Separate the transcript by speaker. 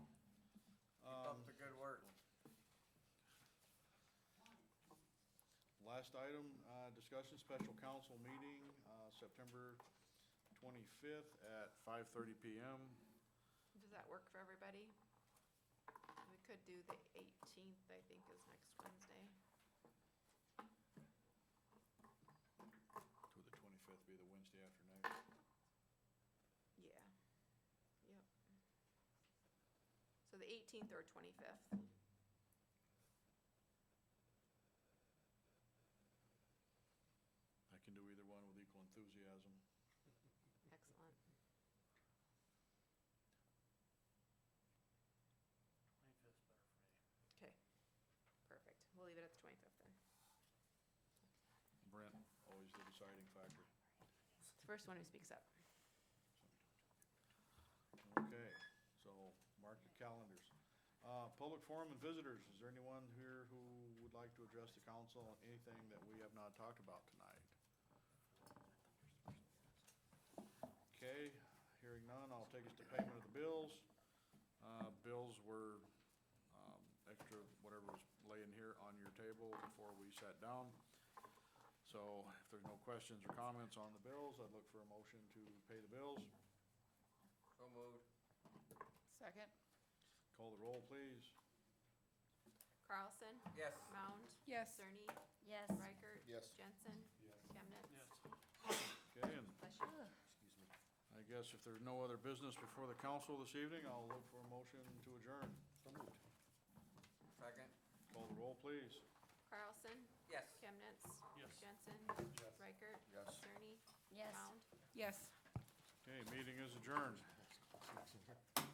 Speaker 1: Um, Last item, uh, discussion, special council meeting, uh, September 25th at 5:30 PM.
Speaker 2: Does that work for everybody? We could do the eighteenth, I think, is next Wednesday.
Speaker 1: To the 25th be the Wednesday after next.
Speaker 2: Yeah. Yep. So the eighteenth or twenty-fifth.
Speaker 1: I can do either one with equal enthusiasm.
Speaker 2: Excellent.
Speaker 3: Twenty-fifth's better for me.
Speaker 2: Okay. Perfect. We'll leave it at the twenty-fifth then.
Speaker 1: Brent, always the deciding factor.
Speaker 2: It's the first one who speaks up.
Speaker 1: Okay, so mark your calendars. Uh, Public forum and visitors, is there anyone here who would like to address the council on anything that we have not talked about tonight? Okay, hearing none, I'll take us to payment of the bills. Uh, Bills were um, extra, whatever was laying here on your table before we sat down. So if there's no questions or comments on the bills, I'd look for a motion to pay the bills.
Speaker 4: So moved.
Speaker 5: Second?
Speaker 1: Call the roll, please.
Speaker 2: Carlson?
Speaker 4: Yes.
Speaker 2: Mound?
Speaker 5: Yes.
Speaker 2: Cerny?
Speaker 5: Yes.
Speaker 2: Reichert?
Speaker 4: Yes.
Speaker 2: Jensen?
Speaker 1: Yes.
Speaker 2: Chemnitz?
Speaker 3: Yes.
Speaker 1: Okay, and
Speaker 2: Bless you.
Speaker 4: Excuse me.
Speaker 1: I guess if there's no other business before the council this evening, I'll look for a motion to adjourn.
Speaker 4: So moved. Second?
Speaker 1: Call the roll, please.
Speaker 2: Carlson?
Speaker 4: Yes.
Speaker 2: Chemnitz?
Speaker 3: Yes.
Speaker 2: Jensen? Reichert?
Speaker 4: Yes.
Speaker 2: Cerny?
Speaker 5: Yes.
Speaker 2: Mound?
Speaker 5: Yes.
Speaker 1: Okay, meeting is adjourned.